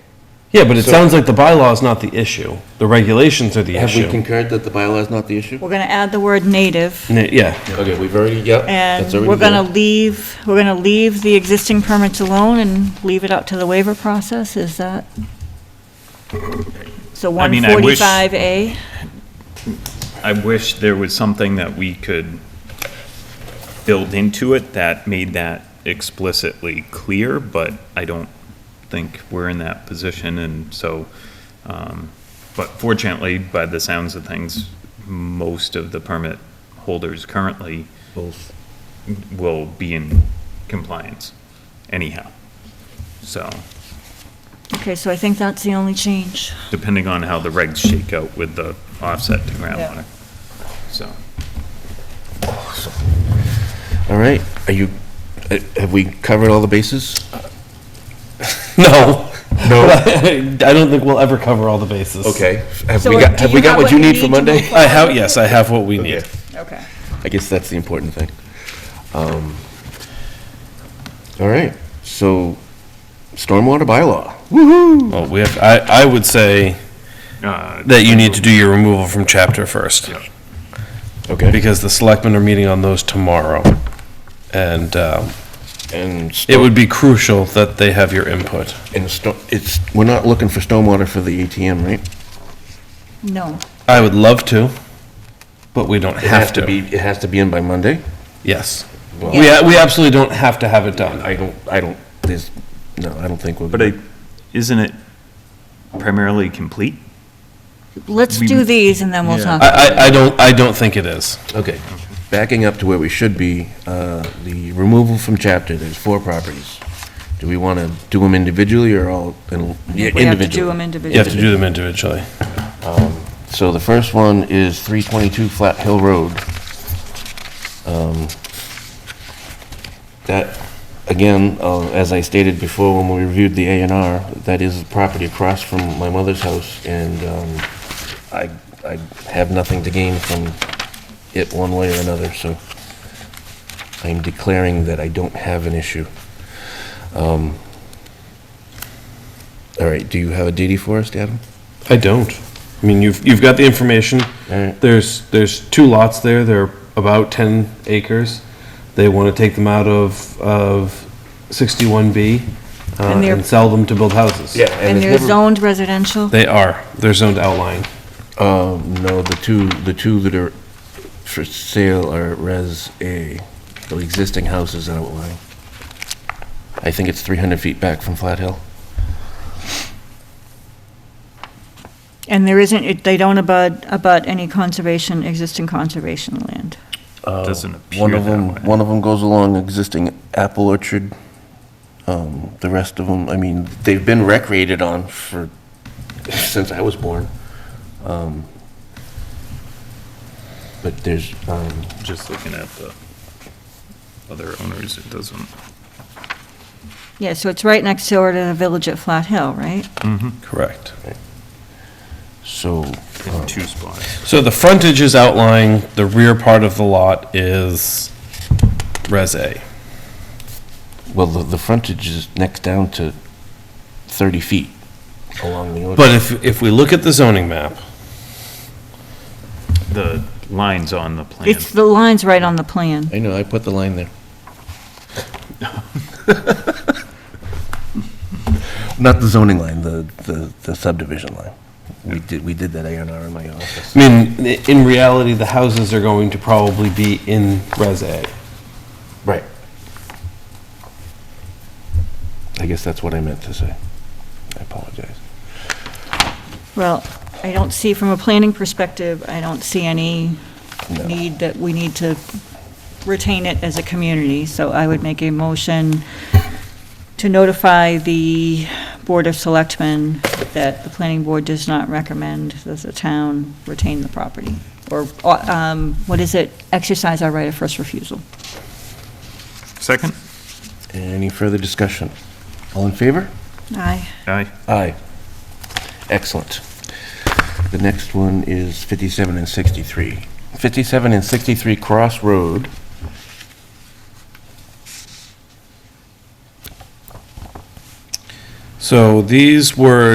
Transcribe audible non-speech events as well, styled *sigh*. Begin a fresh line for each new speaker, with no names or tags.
Yeah, but it
So-
sounds like the bylaw is not the issue. The regulations are the
Have we
issue.
concurred that the bylaw is not the issue?
We're going to add the word native,
N- Yeah, *laughs*
Okay, we've already, yep.
and
that's already
we're going to
done.
leave, we're going to leave the existing permits alone and leave it up to the waiver process, is that? So
I mean, I wish-
145A,
I wish there was something that we could build into it that made that explicitly clear, but I don't think we're in that position, and so, um, but fortunately, by the sounds of things, most of the permit holders currently will be in compliance anyhow. So,
okay, so I think that's the only change.
depending on how the regs shake out with the offset to
Yeah.
groundwater, so.
All right, are you, uh, have we covered all the bases?
no.
No.
*laughs* I don't think we'll ever cover all the bases.
Okay, have
So
we
what-
got,
do
have we
you
got
have
what you need
to
for Monday?
move
I have, yes, I have what we
Okay,
need.
Okay.
I guess that's the important thing. Um, All right, so stormwater bylaw.
Well, we have, I, I would say
uh,
that you need to do your removal from chapter first.
Okay.
Because the selectmen are meeting on those tomorrow. And, um,
And,
it
sto-
would be crucial that they have your input.
and sto- it's, we're not looking for stormwater for the ATM, right?
No,
I would love to, but we don't
It has
have
to be,
to.
it has to be in by Monday?
Yes. We, a- we absolutely don't have to have it done.
I don't, I don't, there's, no, I don't think we're.
But I, isn't it primarily complete?
let's
We-
do these and then we'll
Yeah.
I,
talk.
I, I don't, I don't think it is.
Okay, backing up to where we should be, uh, the removal from chapter, there's four properties. Do we want to do them individually or all, in- yeah,
We have to do
individually?
them
You have to
individually.
do them individually.
So the first one is 322 Flat Hill Road. Um, That, again, uh, as I stated before when we reviewed the A and R, that is property across from my mother's house, and um, I, I have nothing to gain from it one way or another, so I'm declaring that I don't have an issue. Um, All right, do you have a DD for us, Adam?
I don't. I mean, you've, you've got the information.
All right.
There's, there's two lots there. They're about 10 acres. They want to take them out of, of 61B uh,
And they're-
and sell them to build houses.
And
it's
they're
never-
zoned residential?
They are. They're zoned outlying.
Um, no, the two, the two that are for sale are Res A, the existing houses outlying. I think it's 300 feet back from Flat Hill.
And there isn't, it- they don't abut, abut any conservation, existing conservation land.
Doesn't
One
appear
of them,
that way.
one of them goes along existing apple orchard. Um, the rest of them, I mean, they've been recreated on for, *laughs* since I was born. Um, But there's, um,
Just looking at the other owners, it doesn't.
Yeah, so it's right next door to the village at Flat Hill, right?
Correct.
so,
In two spots.
So the frontage is outlying. The rear part of the lot is Res A.
well, the, the frontage is next down to 30 feet along the orchard.
But if, if we look at the zoning map,
The lines on the plan.
It's, the line's right on the plan.
I know, I put the line there. Not the zoning line, the, the, the subdivision line. We did, we did that A and R in my office.
I mean, i- in reality, the houses are going to probably be in Res A.
Right. I guess that's what I meant to say. I apologize.
Well, I don't see, from a planning perspective, I don't see any
No.
need that we need to retain it as a community, so I would make a motion to notify the Board of Selectmen that the planning board does not recommend that the town retain the property, or, uh, um, what is it, exercise our right of first refusal.
Second?
Any further discussion? All in favor?
Aye.
Aye.
Aye. Excellent. The next one is 57 and 63. 57 and 63 Cross Road.
So these were